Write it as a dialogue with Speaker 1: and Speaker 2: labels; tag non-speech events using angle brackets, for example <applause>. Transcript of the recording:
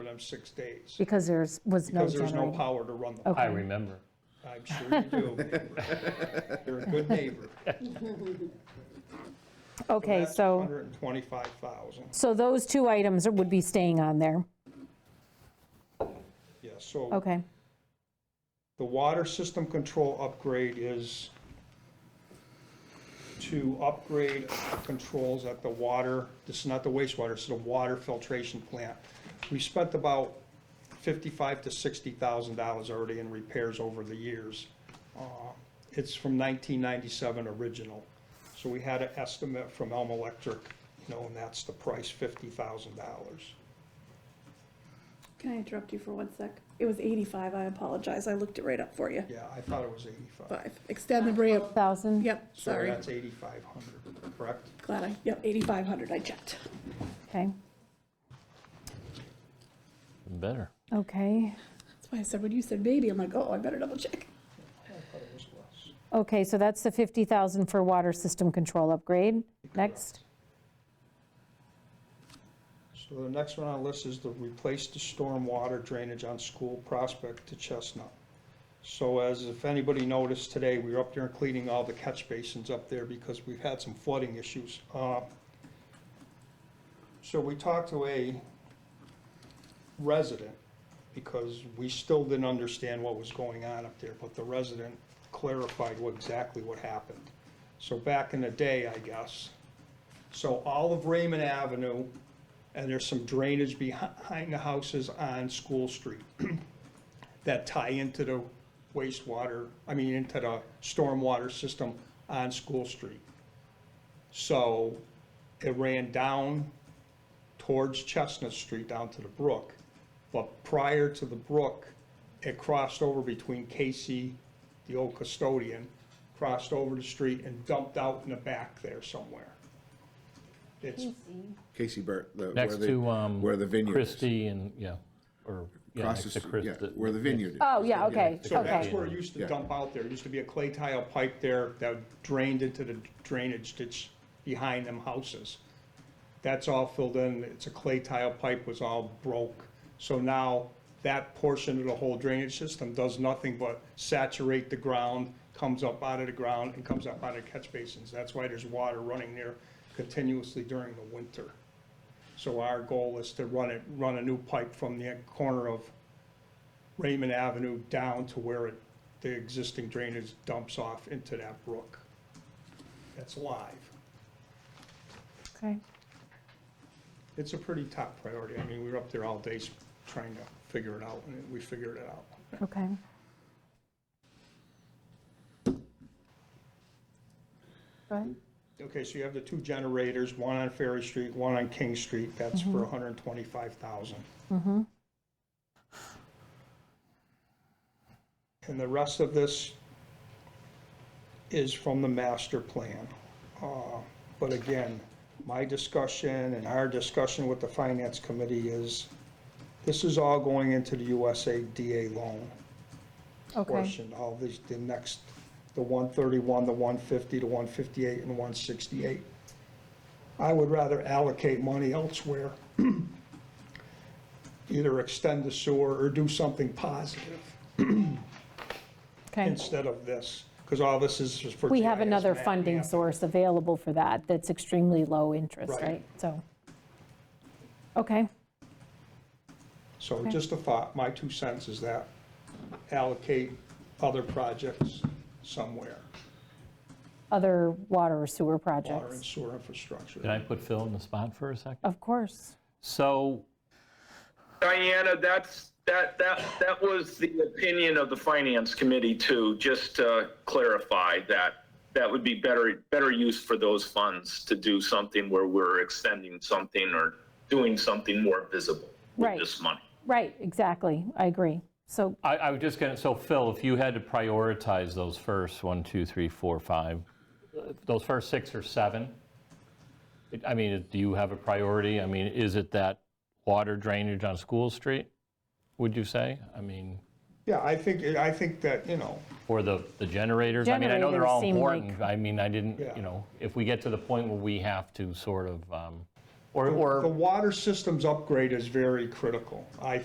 Speaker 1: six days
Speaker 2: Because there's, was no Oh.
Speaker 1: because there's no
Speaker 2: generator.
Speaker 1: power to run them.
Speaker 3: Mm.
Speaker 2: Okay.
Speaker 4: I remember.
Speaker 1: I'm sure you
Speaker 2: <laughs>
Speaker 1: do. You're a good neighbor.
Speaker 2: Okay,
Speaker 1: That's
Speaker 2: so,
Speaker 1: 125,000.
Speaker 2: so those two items would be staying on there.
Speaker 1: Yeah, so
Speaker 2: Okay,
Speaker 1: the water system control upgrade is to upgrade controls at the water, this is not the wastewater, this is the water filtration plant. We spent about 55 to 60,000 dollars already in repairs over the years. Uh, It's from 1997 original. So we had an estimate from Elm Electric, you know, and that's the price, 50,000 dollars.
Speaker 5: Can I interrupt you for one sec? It was 85, I apologize, I looked it right up for you.
Speaker 1: Yeah, I thought it was 85.
Speaker 5: Five, extend the ramp,
Speaker 2: 1,000?
Speaker 5: yep,
Speaker 1: So
Speaker 5: sorry,
Speaker 1: that's 8,500, correct?
Speaker 5: glad I, yep, 8,500, I checked.
Speaker 2: Okay,
Speaker 4: Better.
Speaker 2: okay.
Speaker 5: That's why I said, when you said maybe, I'm like, oh, I better double check.
Speaker 1: I thought it was less.
Speaker 2: Okay, so that's the 50,000 for water system control upgrade. Next.
Speaker 1: So the next one on the list is to replace the stormwater drainage on School Prospect to Chestnut. So as if anybody noticed today, we were up there and cleaning all the catch basins up there because we've had some flooding issues. Uh, So we talked to a resident because we still didn't understand what was going on up there, but the resident clarified what, exactly what happened. So back in the day, I guess, so all of Raymond Avenue, and there's some drainage behind the houses on School Street <clears throat> that tie into the wastewater, I mean, into the stormwater system on School Street. So it ran down towards Chestnut Street, down to the brook. But prior to the brook, it crossed over between Casey, the old custodian, crossed over the street and dumped out in the back there somewhere. It's
Speaker 3: Casey Burt. the-
Speaker 4: Next
Speaker 3: where the-
Speaker 4: to, um.
Speaker 3: Where the vineyard is.
Speaker 4: Christie and, yeah, or, yeah,
Speaker 3: Across
Speaker 4: next
Speaker 3: the
Speaker 4: to
Speaker 3: street, yeah,
Speaker 4: Christie.
Speaker 3: where the vineyard is.
Speaker 2: Oh, yeah, okay,
Speaker 1: So that's
Speaker 2: okay.
Speaker 1: where it used to
Speaker 3: Yeah.
Speaker 1: dump out there. There used to be a clay tile pipe there that drained into the drainage ditch behind them houses. That's all filled in. It's a clay tile pipe was all broke. So now that portion of the whole drainage system does nothing but saturate the ground, comes up out of the ground and comes up out of catch basins. That's why there's water running there continuously during the winter. So our goal is to run it, run a new pipe from the corner of Raymond Avenue down to where it, the existing drainage dumps off into that brook. That's live.
Speaker 2: Okay.
Speaker 1: It's a pretty top priority. I mean, we were up there all day s- trying to figure it out, and we figured it out.
Speaker 2: Okay. Go ahead.
Speaker 1: Okay, so you have the two generators, one on Ferry Street, one on King Street. That's for 125,000. And the rest of this is from the master plan. Uh, But again, my discussion and our discussion with the finance committee is, this is all going into the USADA loan
Speaker 2: Okay,
Speaker 1: portion, all these, the next, the 131, the 150, the 158, and the 168. I would rather allocate money elsewhere, <clears throat> either extend the sewer or do something positive
Speaker 2: okay.
Speaker 1: instead of this, because all this is just for.
Speaker 2: We have
Speaker 1: GIS
Speaker 2: another
Speaker 1: map.
Speaker 2: funding source available for that, that's extremely low interest,
Speaker 1: Right.
Speaker 2: right? So, okay,
Speaker 1: So just a thought, my two cents is that allocate other projects somewhere,
Speaker 2: other water or sewer
Speaker 1: water and
Speaker 2: projects,
Speaker 1: sewer infrastructure.
Speaker 4: Can I put Phil in the spot for a second?
Speaker 2: of course.
Speaker 4: So,
Speaker 6: Diana, that's, that, that, that was the opinion of the finance committee too, just to clarify that. That would be better, better use for those funds to do something where we're extending something or doing something more visible
Speaker 2: Right.
Speaker 6: with this money.
Speaker 2: Right, exactly, I agree. So,
Speaker 4: I, I was just gonna, so Phil, if you had to prioritize those first, one, two, three, four, five, uh, those first six or seven, it- I mean, do you have a priority? I mean, is it that water drainage on School Street, would you say? I mean,
Speaker 1: Yeah, I think, I think that, you know,
Speaker 4: or the, the generators? I mean, I know they're
Speaker 2: Generators
Speaker 4: all
Speaker 2: seem like-
Speaker 4: important. I mean, I didn't,
Speaker 1: Yeah.
Speaker 4: you know, if we get to the point where we have to sort of, um, or,
Speaker 1: The
Speaker 4: or
Speaker 1: water systems upgrade is very critical, I